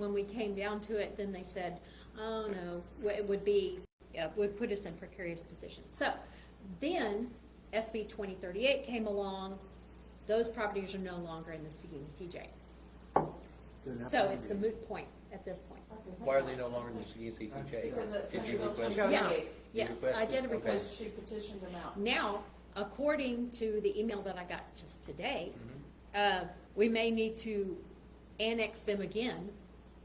when we came down to it, then they said, oh, no, w- it would be, yeah, would put us in precarious positions. So then SB 2038 came along, those properties are no longer in the CDBG. now- So it's a moot point at this point. Why are they no longer in the CDCJ? Because that's Did you central request? to- it? Yes, yes, I did a Okay. request. She petitioned them out. Now, according to the email that I got just today, Mhm. Mm-hmm. uh, we may need to annex them again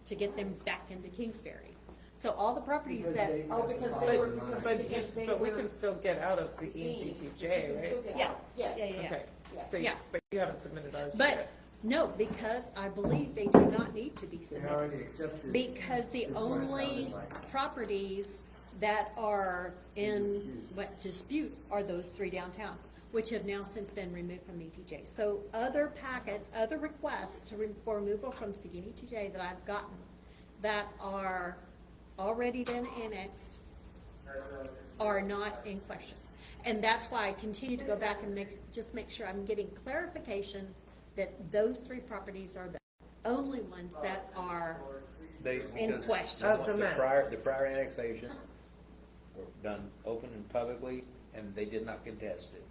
to get them back into Kingsbury. So all the properties Because that, they- Oh, because they were, But, because but, because they were. but we can still get out of the E speeding. You EGTJ, can right? still get Yeah. out. Yes. Yeah, yeah, yeah. Okay, Yes. so, you- Yeah. but you haven't submitted ours but, yet. no, because I believe they do not need to be They submitted. already accepted. Because the This is what it only sounded like. properties that are in, Dispute. what, dispute are those three downtown, which have now since been removed from the ETJ. So other packets, other requests to re- for removal from Seguin ETJ that I've gotten that are already been annexed are not in question. And that's why I continue to go back and make, just make sure I'm getting clarification that those three properties are the only ones that are They- In because question. Of the map. prior, the prior annexation were done open and publicly, and they did not contest it.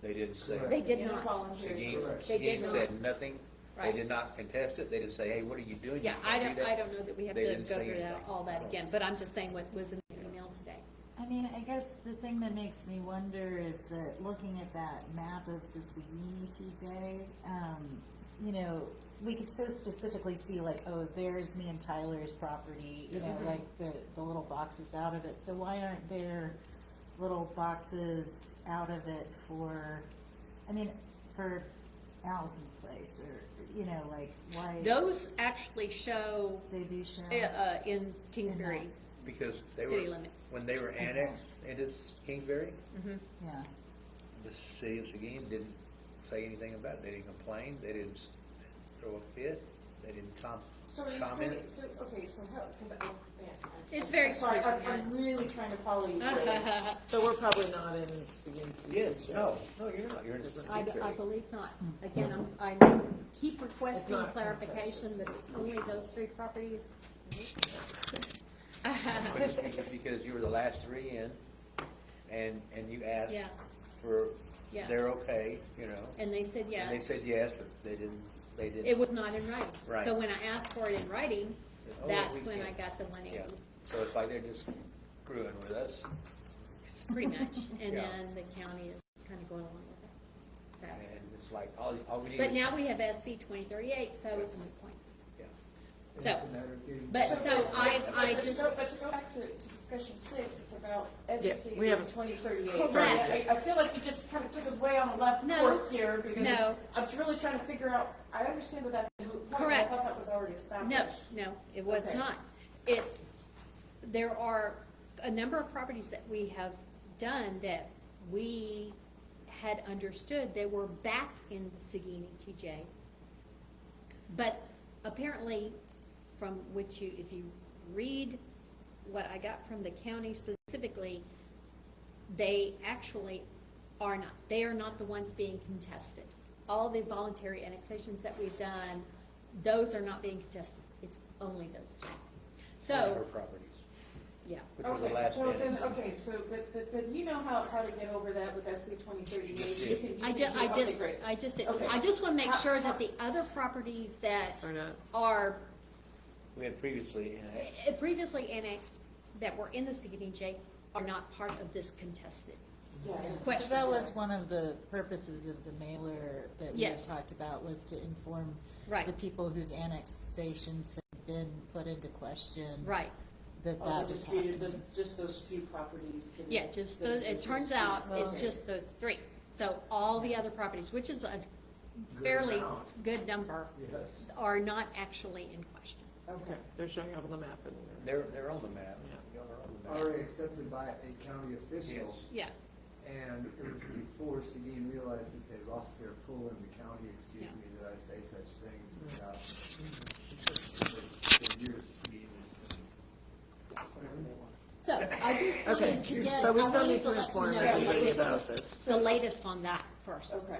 They didn't say. Correct. They did And not. voluntary. Seguin, Correct. They did Seguin said nothing. They Right. did not contest it. They didn't say, hey, what are you doing? You Yeah, I can't don't, do I don't know that we have They to didn't go say through that, anything. all that again, but I'm just saying what was in the email today. I mean, I guess the thing that makes me wonder is that looking at that map of the Seguin TJ, um, you know, we could so specifically see like, oh, there's me and Tyler's property, you know, like the, the little boxes out of it. So why aren't there little boxes out of it for, I mean, for Allison's place or, you know, like why Those actually show, they do share? uh, uh, in Kingsbury, Because they City were, limits. Mm-hmm. when they were annexed into Kingsbury, Yeah. the city of Seguin didn't say anything about it. They didn't complain. They didn't s- throw a fit. They didn't com- So, are you- so, comment. so, okay, so how, because I, man, I. It's very I'm Sorry, close, I'm, I'm yes. Uh-huh. really trying to follow you. Ray. So we're probably not in the E EGTJ. Yes, no, no, you're not. You're in different I, I Kingsbury. believe not. Again, I'm, I keep requesting not clarification that it's only those three properties. But it's because- Because you were the last three in, and, and you asked Yeah. for, Yeah. they're okay, you know? And they said And they yes. said yes, but they didn't, they didn't. It was not in writing. Right. So when I asked for it in writing, Oh, that's we when I can't. got the one Yeah, eighty, so it's like they're just screwing with us. pretty much. And Yeah. then the county is kind of going along with it. So. And it's like, all, all we need is. But now we have SB twenty thirty-eight, so it's a moot point. Yeah. And So- it's a matter of getting- but so but- I- but- I but to just- go- But to go back to, to discussion six, it's about we educating haven't- twenty thirty-eight. Correct. I, I feel like you just kind of took us way on the left No. course here because No. I'm really trying to figure out, I understand that that's a moot point, but I Correct. thought that was already established. No, no, it was Okay. not. It's, there are a number of properties that we have done that we had understood they were back in the Seguin TJ. But apparently, from which you, if you read what I got from the county specifically, they actually are not. They are not the ones being contested. All the voluntary annexations that we've done, those are not being contested. It's only those two. Her So, properties, yeah. which was the Okay, last so then, uh, in. okay, so, but, but, but you know how, how to get over that with SB twenty thirty-eight, you can, you I can do, just, I okay, just, great. I just, did- Okay. I just wanna make How- sure how- that the other properties that Or not. are We had previously annexed. eh, previously annexed, that were in the CDBG, are not part of this contested. Yeah, yeah. Question. That was one of the purposes of the mailer that we had Yes. talked about, was to inform Right. the people whose annexations had been put into question. Right, That Oh, that the was disputed, the, happening. just those few properties. that- yeah, just, that those- there's it turns dispute. out it's Okay. just those three. So all the other properties, which is a Good fairly amount. good number, Yes. are not actually in question. Okay, they're showing up on the map and. They're, they're on the map. Yeah. Y'all are on the map. Already accepted by a county official. Yes. Yeah, And it was before Seguin realized that they lost their pull in the county, excuse Yeah. Mm-hmm. me that I say such things without. The the years Seguin was. so I just Okay, wanted to get, I but we still wanted to need to let you inform know everybody everybody about this. the latest on that first. Okay,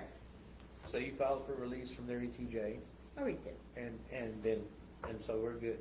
So you filed for release from their E ETJ, I already Oh, did. and, and then and so we're good.